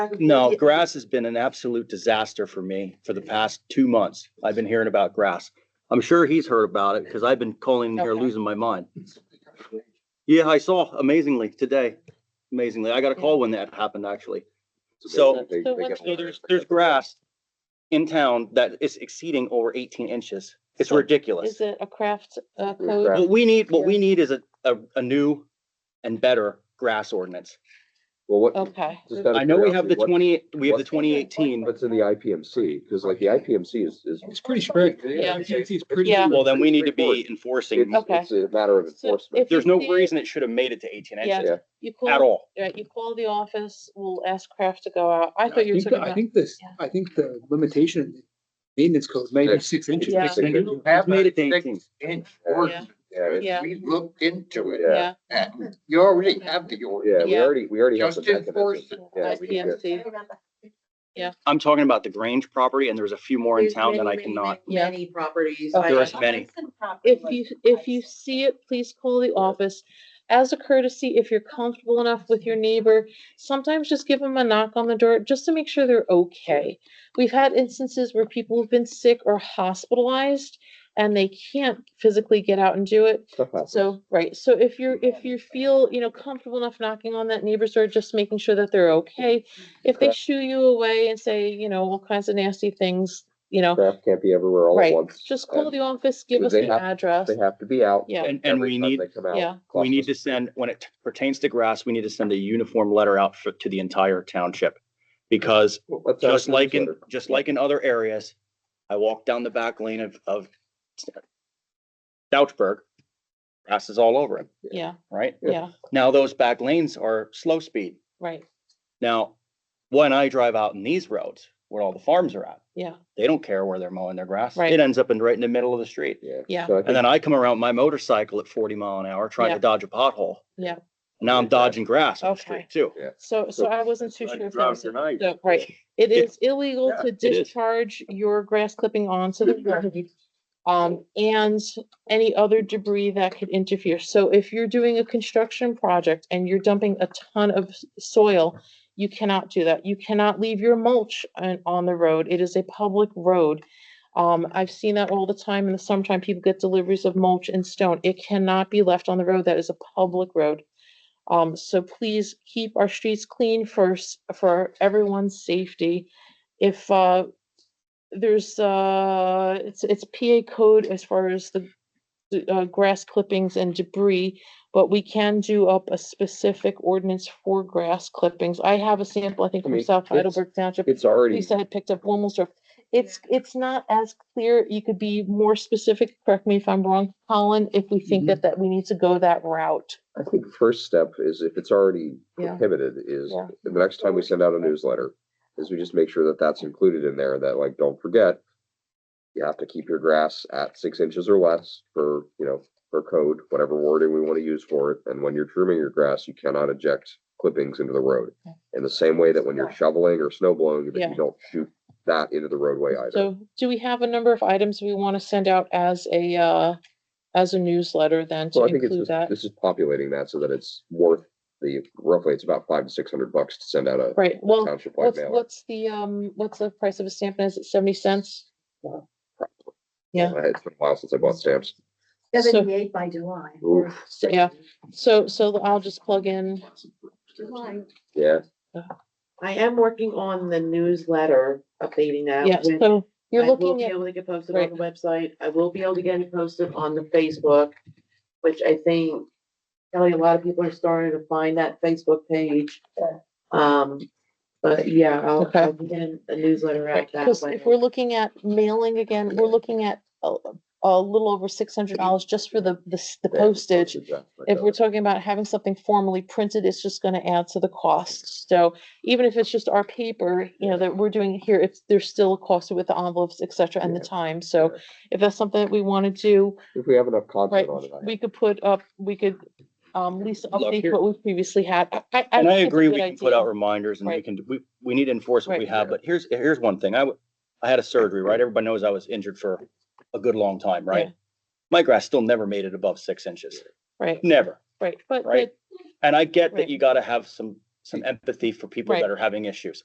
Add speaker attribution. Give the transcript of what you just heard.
Speaker 1: No, grass has been an absolute disaster for me for the past two months. I've been hearing about grass. I'm sure he's heard about it because I've been calling here
Speaker 2: Okay.
Speaker 1: losing my mind. Yeah, I saw amazingly today. Amazingly, I got a call when that happened actually. So,
Speaker 2: So what's-
Speaker 1: so there's, there's grass in town that is exceeding over eighteen inches. It's
Speaker 2: So
Speaker 1: ridiculous.
Speaker 2: Is it a craft, uh,
Speaker 3: Yeah,
Speaker 2: code?
Speaker 3: craft.
Speaker 1: What we need, what
Speaker 2: Yeah.
Speaker 1: we need is a, a, a new and better grass ordinance.
Speaker 3: Well, what,
Speaker 2: Okay.
Speaker 3: just out of
Speaker 1: I know we have the
Speaker 3: curiosity, what-
Speaker 1: twenty, we have the
Speaker 3: what-
Speaker 1: twenty eighteen.
Speaker 3: What's in the IPMC? Because like the IPMC is, is.
Speaker 4: It's pretty strict.
Speaker 2: Yeah.
Speaker 4: AT&T is pretty
Speaker 2: Yeah.
Speaker 4: strict.
Speaker 1: Well, then we need to be
Speaker 3: Straightforward.
Speaker 1: enforcing.
Speaker 3: It's,
Speaker 2: Okay.
Speaker 3: it's a matter of
Speaker 2: So
Speaker 3: enforcement.
Speaker 2: if you
Speaker 1: There's no
Speaker 2: see it,
Speaker 1: reason it should have made it to eighteen
Speaker 2: Yeah.
Speaker 1: inches
Speaker 3: Yeah.
Speaker 2: You
Speaker 1: at
Speaker 2: call,
Speaker 1: all.
Speaker 2: right, you call the office, we'll ask Kraft to go out. I
Speaker 4: I
Speaker 2: thought you were
Speaker 4: think,
Speaker 2: talking
Speaker 4: I
Speaker 2: about,
Speaker 4: think this,
Speaker 2: Yeah.
Speaker 4: I think the limitation, maintenance code may be
Speaker 3: Six.
Speaker 4: six inches.
Speaker 2: Yeah.
Speaker 4: Six inches.
Speaker 5: You have
Speaker 1: Made
Speaker 5: a
Speaker 1: it to 18.
Speaker 5: six inch ordinance.
Speaker 3: Yeah, it's-
Speaker 2: Yeah.
Speaker 5: We looked into it.
Speaker 2: yeah,
Speaker 5: and You already have the ordinance.
Speaker 3: yeah, we
Speaker 2: Yeah.
Speaker 3: already, we already have
Speaker 5: Just
Speaker 3: the mechanism.
Speaker 5: enforce it.
Speaker 3: Yeah, we do.
Speaker 2: IPMC,
Speaker 1: I'm talking about the Grange property and there's a few more in
Speaker 6: There's
Speaker 1: town that I
Speaker 6: many, many,
Speaker 1: cannot.
Speaker 2: Yeah.
Speaker 6: Many properties.
Speaker 2: Okay.
Speaker 1: There's many.
Speaker 2: If you, if you see it, please call the office. As a courtesy, if you're comfortable enough with your neighbor, sometimes just give them a knock on the door just to make sure they're okay. We've had instances where people have been sick or hospitalized and they can't physically get out and do it.
Speaker 3: Stuff happens.
Speaker 2: So, right, so if you're, if you feel, you know, comfortable enough knocking on that neighbor's door, just making sure that they're okay. If they
Speaker 3: Correct.
Speaker 2: shoo you away and say, you know, all kinds of nasty things, you know,
Speaker 3: Craft can't be everywhere all at
Speaker 2: right,
Speaker 3: once.
Speaker 2: just call
Speaker 3: and
Speaker 2: the office, give
Speaker 3: do
Speaker 2: us
Speaker 3: they
Speaker 2: an
Speaker 3: have-
Speaker 2: address.
Speaker 3: They have to be out.
Speaker 2: Yeah.
Speaker 1: And, and
Speaker 3: every
Speaker 1: we
Speaker 3: time
Speaker 1: need,
Speaker 3: they come out.
Speaker 2: yeah.
Speaker 3: Cost
Speaker 1: we need to
Speaker 3: us-
Speaker 1: send, when it pertains to grass, we need to send a uniform letter out for, to the entire township. Because
Speaker 3: Well, let's have
Speaker 1: just
Speaker 3: a
Speaker 1: like in,
Speaker 3: newsletter.
Speaker 1: just like in other areas, I walk down the back lane of, of Douchburg, grass is all over it,
Speaker 2: Yeah,
Speaker 1: right?
Speaker 3: Yeah.
Speaker 2: yeah,
Speaker 1: Now those back lanes are slow speed.
Speaker 2: right,
Speaker 1: Now, when I drive out in these roads where all the farms are at,
Speaker 2: yeah,
Speaker 1: they don't care where they're mowing their grass.
Speaker 2: Right.
Speaker 1: It ends up in right in the middle of the street.
Speaker 3: Yeah.
Speaker 2: Yeah.
Speaker 3: So I
Speaker 1: And
Speaker 3: think
Speaker 1: then I come around my motorcycle at forty mile an hour trying
Speaker 2: Yeah.
Speaker 1: to dodge a pothole.
Speaker 2: Yeah.
Speaker 1: Now I'm dodging grass on the
Speaker 2: Okay.
Speaker 1: street too.
Speaker 2: so, so I wasn't too
Speaker 5: Like
Speaker 2: sure if that
Speaker 5: drop
Speaker 2: was,
Speaker 5: your
Speaker 2: it.
Speaker 5: knife.
Speaker 2: So, right, it
Speaker 1: Yeah.
Speaker 2: is illegal
Speaker 5: Yeah,
Speaker 2: to
Speaker 1: is.
Speaker 2: discharge your grass clipping onto the road. Um, and any other debris that could interfere, so if you're doing a construction project and you're dumping a ton of s- soil, you cannot do that, you cannot leave your mulch on, on the road, it is a public road. Um, I've seen that all the time, in the summertime, people get deliveries of mulch and stone, it cannot be left on the road, that is a public road. Um, so please keep our streets clean first for everyone's safety. If, uh, there's, uh, it's, it's PA code as far as the, the, uh, grass clippings and debris, but we can do up a specific ordinance for grass clippings. I have a sample, I think
Speaker 3: I
Speaker 2: from
Speaker 3: mean,
Speaker 2: South
Speaker 3: it's-
Speaker 2: Heidelberg Township.
Speaker 3: It's already,
Speaker 2: Lisa had picked up Wilmsdorf. It's, it's not as clear. You could be more specific. Correct me if I'm wrong, Colin, if we think
Speaker 3: Mm-hmm.
Speaker 4: Mhm.
Speaker 2: that, that we need to go that route.
Speaker 3: I think first step is if it's already
Speaker 2: Yeah.
Speaker 3: prohibited is
Speaker 2: Yeah.
Speaker 3: the next time we send out a newsletter is we just make sure that that's included in there that like, don't forget. You have to keep your grass at six inches or less for, you know, for code, whatever wording we want to use for it. And when you're trimming your grass, you cannot eject clippings into the road.
Speaker 2: Okay.
Speaker 3: In the same way that when you're shoveling or snow blowing, that
Speaker 2: Yeah.
Speaker 3: you don't shoot that into the roadway either.
Speaker 2: So do we have a number of items we want to send out as a, uh, as a newsletter then to
Speaker 3: Well, I think it's
Speaker 2: include
Speaker 3: just,
Speaker 2: that?
Speaker 3: this is populating that so that it's worth the, roughly, it's about five to six hundred bucks to send out a
Speaker 2: Right, well,
Speaker 3: township wide
Speaker 2: what's,
Speaker 3: mailer.
Speaker 2: what's the, um, what's the price of a stamp? and Is it seventy cents? yeah.
Speaker 3: Uh, It's been a while since I bought stamps.
Speaker 6: Seventy-eight by July. or
Speaker 3: Oof.
Speaker 2: So, yeah. So, so I'll just plug in,
Speaker 6: July.
Speaker 3: Yeah,
Speaker 7: I am working on the newsletter, updating that.
Speaker 2: yeah,
Speaker 7: when
Speaker 2: so you're
Speaker 7: I will
Speaker 2: looking
Speaker 7: be
Speaker 2: at,
Speaker 7: Able to get posted on
Speaker 2: Right.
Speaker 7: the website. I will be able to get it posted on the Facebook, which I think, Kelly, a lot of people are starting to find that Facebook page. Um, but yeah, I'll,
Speaker 2: Okay.
Speaker 7: I'll be getting a newsletter out that
Speaker 2: because
Speaker 7: way.
Speaker 2: if we're looking at mailing again, we're looking at a, a little over six hundred dollars just for the, the, s- the
Speaker 3: Yeah, it's
Speaker 2: postage.
Speaker 3: exactly
Speaker 2: if
Speaker 3: that.
Speaker 2: we're talking about having something formally printed, it's just gonna add to the cost. So even if it's just our paper, you know, that we're doing here, it's, there's still a cost with the envelopes, et cetera, and the
Speaker 3: Yeah,
Speaker 2: time. So
Speaker 3: yeah.
Speaker 2: if that's something that we wanna do,
Speaker 3: If we have enough
Speaker 2: right,
Speaker 3: content on it, I-
Speaker 2: we could put up, we could, um, Lisa,
Speaker 1: Look,
Speaker 2: update
Speaker 1: here-
Speaker 2: what we previously had. I- I, I.
Speaker 1: And
Speaker 2: think
Speaker 1: I
Speaker 2: it's a
Speaker 1: agree, we
Speaker 2: good
Speaker 1: can put out
Speaker 2: idea.
Speaker 1: reminders and we
Speaker 2: Right.
Speaker 1: can, we, we need to enforce what we
Speaker 2: Right.
Speaker 1: have, but here's, here's one thing. I, w- I had a surgery, right? Everybody knows I was injured for a good long time,
Speaker 2: Yeah.
Speaker 1: right? My grass still never made it above six inches,
Speaker 2: Right,
Speaker 1: never.
Speaker 2: right, but,
Speaker 1: Right.
Speaker 2: but,
Speaker 1: And I get
Speaker 2: Right.
Speaker 1: that you gotta have some, some empathy for people
Speaker 2: Right.
Speaker 1: that are having issues.